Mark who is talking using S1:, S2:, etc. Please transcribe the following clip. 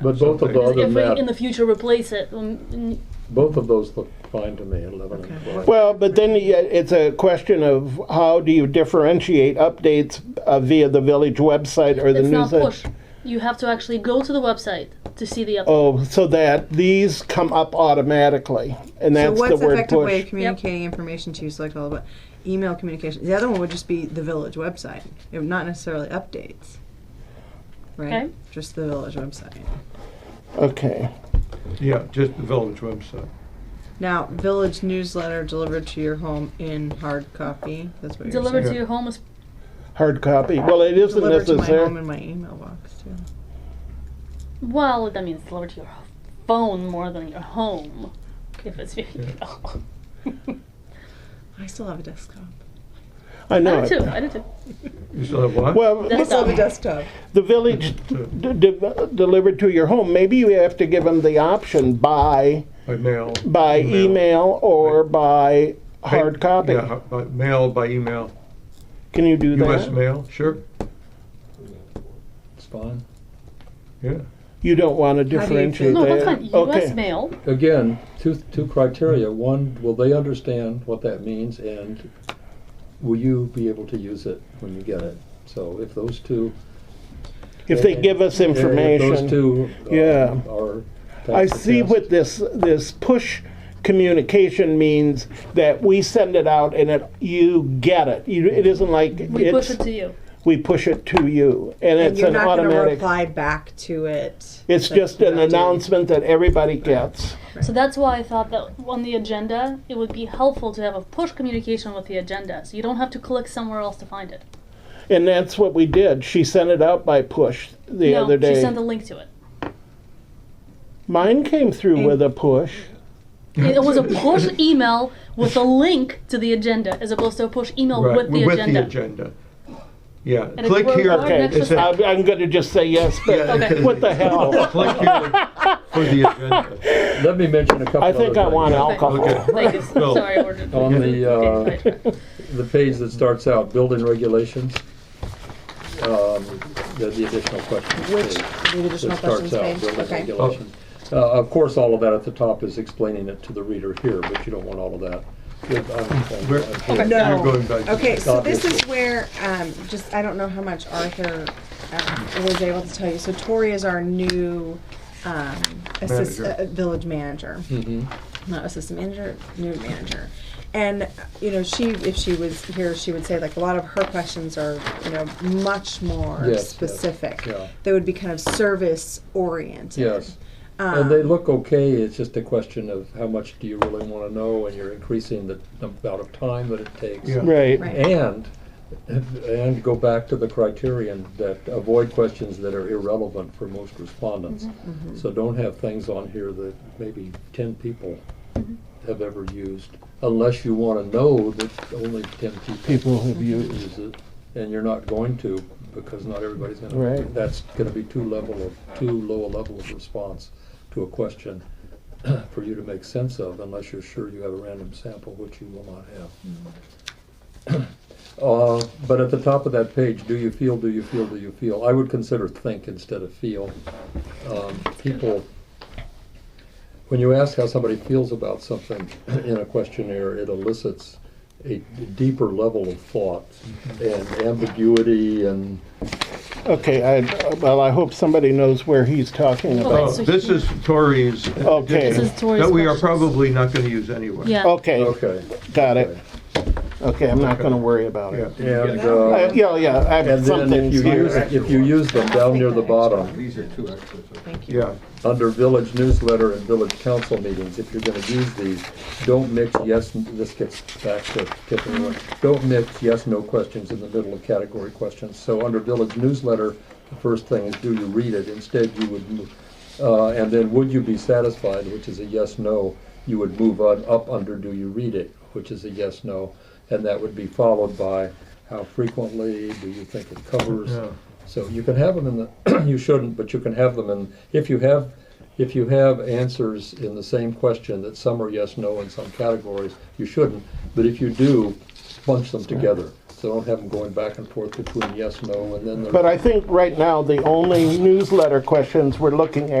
S1: But both of the
S2: Because
S1: other
S2: if we in the
S1: map,
S2: future replace it, um, mm,
S1: both of those look fine to me, eleven and twelve.
S3: Well, but then yeah, it's a question of how do you differentiate updates uh, via the village website or the
S2: it's not
S3: news?
S2: push. You have to actually go to the website to see the update.
S3: Oh, so that these come up automatically, and
S4: So
S3: that's
S4: what's
S3: the
S4: an
S3: word
S4: effective
S3: push.
S4: way of communicating information to you? Select all about email communication. The other one would just be the village website, It would not necessarily updates, right?
S2: Okay.
S4: Just the village website.
S3: Okay.
S5: Yeah, just the village website.
S4: Now, village newsletter delivered to your home in hard copy. That's what you're
S2: Delivered
S4: saying.
S2: to your home is
S3: Hard copy. Well, it isn't
S4: Delivered to my home
S3: necessary.
S4: in my email box too.
S2: well. That means delivered to your phone more than your home. If it's your email.
S4: I still have a desktop.
S3: I know.
S2: I do
S3: it.
S2: too. I do too.
S5: You still have what?
S3: Well,
S2: That's
S4: I still have
S2: not-
S4: a desktop.
S3: the village d- de- delivered to your home. Maybe you have to give them the option by
S5: By mail.
S3: by email, or by hard copy.
S5: Yeah, by mail, by email.
S3: Can you do
S5: US
S3: that?
S5: mail, sure,
S1: It's fine.
S5: yeah.
S3: You don't want to
S4: How do you
S3: differentiate
S2: No, that's
S3: that.
S2: fine.
S3: Okay.
S2: U.S. mail.
S1: Again, two, two criteria. One, will they understand what that means and will you be able to use it when you get it? So if those two.
S3: If they give us
S1: if
S3: information.
S1: Those two. um,
S3: Yeah.
S1: Are.
S3: I
S1: that's the
S3: see
S1: test.
S3: what this, this push communication means, that we send it out and it, you get it. You, it isn't like
S2: We push it
S3: it's,
S2: to you.
S3: we push it to you, and
S4: And
S3: it's
S4: you're
S3: an
S4: not going to
S3: automatic.
S4: reply back to it.
S3: It's
S4: That's
S3: just an
S4: what I do.
S3: announcement that everybody gets.
S2: So that's why I thought that on the agenda, it would be helpful to have a push communication with the agenda, so you don't have to click somewhere else to find it.
S3: And that's what we did. She sent it out by push the
S2: no,
S3: other
S2: she
S3: day.
S2: sent a link to it.
S3: Mine came through with a push.
S2: It was a push email with a link to the agenda, as opposed to a push email
S5: Right,
S2: Oh, with the agenda.
S5: agenda. Yeah,
S2: it
S5: click
S2: will-
S5: here.
S2: or an
S3: Okay,
S2: extra
S5: It says-
S2: step.
S3: I'm, I'm gonna just say yes,
S5: Yeah,
S3: but
S5: it says-
S3: what the hell?
S5: Click here for the agenda.
S1: Let me mention a couple.
S3: I think
S1: other
S3: I want
S1: things.
S3: alcohol.
S5: Okay.
S2: Thank you.
S5: No.
S2: Sorry, I ordered.
S1: On the,
S2: Okay,
S1: uh,
S2: right.
S1: the page that starts out, building regulations. Um, the, the additional questions.
S4: Which
S1: page.
S4: the additional
S1: that starts
S4: questions
S1: out,
S4: page.
S1: building
S4: Okay.
S1: regulations. Uh, Of course, all of that at the top is explaining it to the reader here, but you don't want all of that. Good, I'm-
S5: We're-
S1: I'm-
S5: we're
S1: I'm-
S4: No.
S5: going back to-
S4: Okay, so this is
S1: Obviously.
S4: where, um, just, I don't know how much Arthur um, was able to tell you. So Tori is our new, um, assist,
S5: Manager.
S4: uh, village manager.
S1: Hmm. Mm-hmm. Uh,
S4: Not assistant manager, new manager. And, uh, you know, she, if she was here, she would say like a lot of her questions are, you know, much more
S1: Yes, yes,
S4: specific.
S1: yeah.
S4: They would be kind of Um, service oriented.
S1: Yes. And they look okay, it's just a question of how much do you really want to know, and you're increasing the amount of time that it takes.
S5: Yeah.
S3: Right,
S4: Right.
S1: And, and go back to the criterion that avoid questions that are irrelevant for most respondents.
S4: Mm-hmm.
S1: So don't have things on here that maybe ten people have ever used, unless you want to know that only ten people
S3: people have used.
S1: use it, and you're not going to, because not everybody's gonna.
S3: Right.
S1: That's gonna be too level of, too low a level of response to a question for you to make sense of, unless you're sure you have a random sample, which you will not have. Uh, But at the top of that page, do you feel, do you feel, do you feel? I would consider think instead of feel. Um, People, when you ask how somebody feels about something in a questionnaire, it elicits a deeper level of thought and ambiguity and,
S3: okay, I, well, I hope somebody knows where he's talking about.
S5: Oh,
S2: so
S5: this
S2: he-
S5: is Tori's.
S3: Okay. This
S2: is Tori's
S5: That we are
S2: questions.
S5: probably not gonna use anyway.
S2: Yeah.
S3: Okay,
S1: okay.
S3: got it. Okay, I'm not gonna worry about
S5: Yeah.
S3: it.
S1: And, uh,
S3: Uh, Yeah, yeah, I have
S1: and then
S3: something
S1: if you use,
S3: here.
S1: if you use them down near the bottom,
S6: These are two extras.
S4: Thank you.
S5: Yeah,
S1: under village newsletter and village council meetings, if you're gonna use these, don't mix yes, this gets back to tipping away. Don't mix yes, no questions in the middle of category questions. So under village newsletter, the first thing is, do you read it? Instead, you would, mo- uh, and then would you be satisfied, which is a yes, no. You would move on, up under do you read it, which is a yes, no. And that would be followed by how frequently, do you think it covers?
S5: Yeah.
S1: So you can have them in the, you shouldn't, but you can have them in, if you have, if you have answers in the same question that some are yes, no in some categories, you shouldn't. But if you do, bunch them together. So don't have them going back and forth between yes, no, and then they're.
S3: But I think right now, the only newsletter questions we're looking at